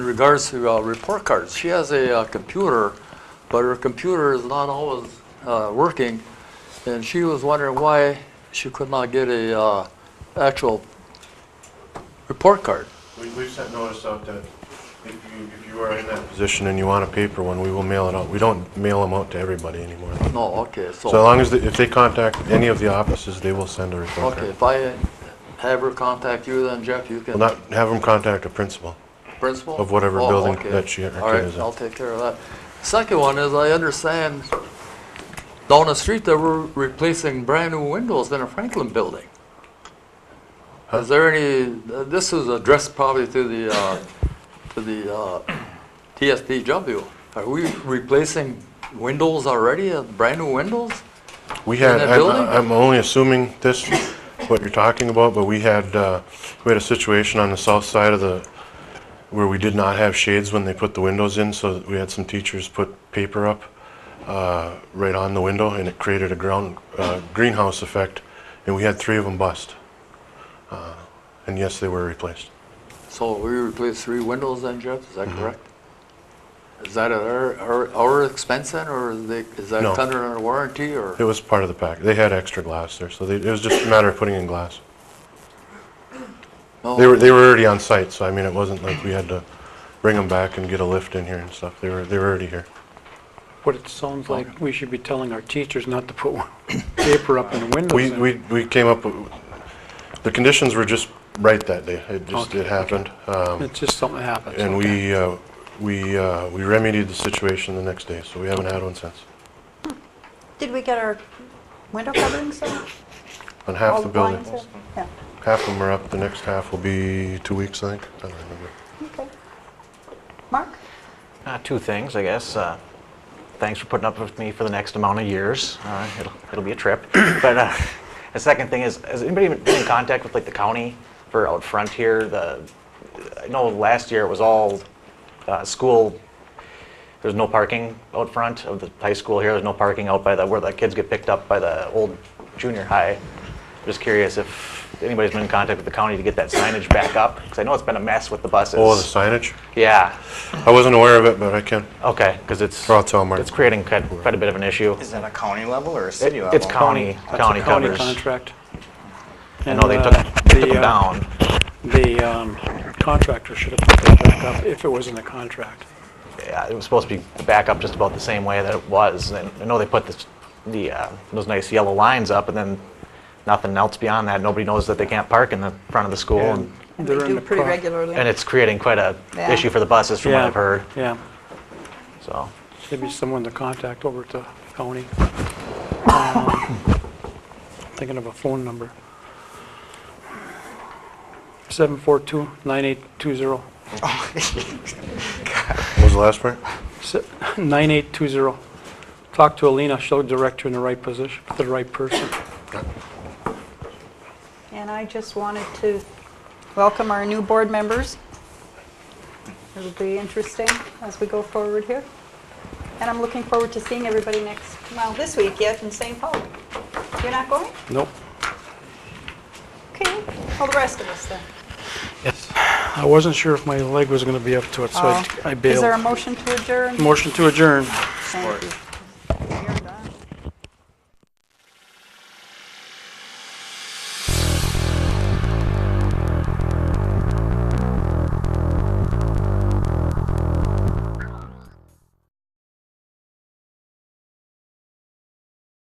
In regards to uh, report cards, she has a uh, computer, but her computer is not always uh, working, and she was wondering why she could not get a uh, actual report card. We, we've sent notice out that if you, if you are in that position and you want a paper one, we will mail it out. We don't mail them out to everybody anymore. No, okay, So as so, long as, the- if they contact any of the offices, they will send a report okay, card. if I have her contact you, then Jeff, you Well, can, not, have them contact a principal. principal? of whatever Oh, building okay. that she- her All kid right, is in. I'll take care of that. Second one is, I understand down the street, they were replacing brand-new windows in a Franklin building. Is there any, uh, this is addressed probably to the, uh, to the uh, TSDW. Are we replacing windows already, uh, brand-new windows? We had, that I'm, building? I'm only assuming this, what you're talking about, but we had, uh, we had a situation on the south side of the, where we did not have shades when they put the windows in, so we had some teachers put paper up, uh, right on the window, and it created a ground, uh, greenhouse effect, and we had three of them bust. Uh, And yes, they were replaced. So we replaced three windows then, Jeff, is that correct? Is that at our, our- our expense then, or is they- is that No. under our warranty, or? It was part of the pack. They had extra glass there, so they, it was just a matter of putting in glass. Oh. No? They were, they were already on site, so I mean, it wasn't like we had to bring them back and get a lift in here and stuff. They were, they were already here. What it sounds like, we should be telling our teachers not to put paper up in the windows. We, then. we, we came up, with- the conditions were just right that day. It just, Okay, it happened. Um, It's just something that happens. And okay. we, uh, we, uh, we remedied the situation the next day, so we haven't had one since. Did we get our window coverings in? On All half the building. blinds in? Yeah, Half of them are up. The next half will be two weeks, I think. I don't remember. okay. Mark? Uh, two things, I guess. Uh, thanks for putting up with me for the next amount of years. Uh, it'll, it'll be a trip. but uh, the second thing is, has anybody been in contact with like the county for out front here? The I know last year it was all uh, school. There's no parking out front of the high school here. There's no parking out by the where the kids get picked up by the old junior high. Just curious if anybody's been in contact with the county to get that signage back up because I know it's been a mess with the buses. Oh, the signage? yeah. I wasn't aware of it, but I can. Okay, because it's. Or I'll tell Mark. It's creating quite, quite a bit of an issue. Is that a county level or a It- city level? It's county, That's a county County covers. contract. I know they And, took, uh, they the, took them uh, down. The um, contractor should have put that back up if it was in the contract. Yeah, It was supposed to be back up just about the same way that it was. And I know they put this, the, uh, those nice yellow lines up and then nothing else beyond that. Nobody knows that they can't park in the front of the school. And And they they're in do the pretty pro- regularly. and it's creating quite a Yeah. issue for the buses from what Yeah, I've heard, Yeah, so. maybe someone to contact over to county. Um, Thinking of a phone number. 742-9820. What was the last part? Se- 9820. Talk to Alina, she'll direct you in the right position, to the right person. And I just wanted to welcome our new board members. It'll be interesting as we go forward here. And I'm looking forward to seeing everybody next, well, this week yet in St. Paul. You're not going? Nope. Okay, well, the rest of us then. I wasn't sure if my leg was going to be up to it, so I- Oh. I Is there a bailed. motion to adjourn? Motion to adjourn. Thank you.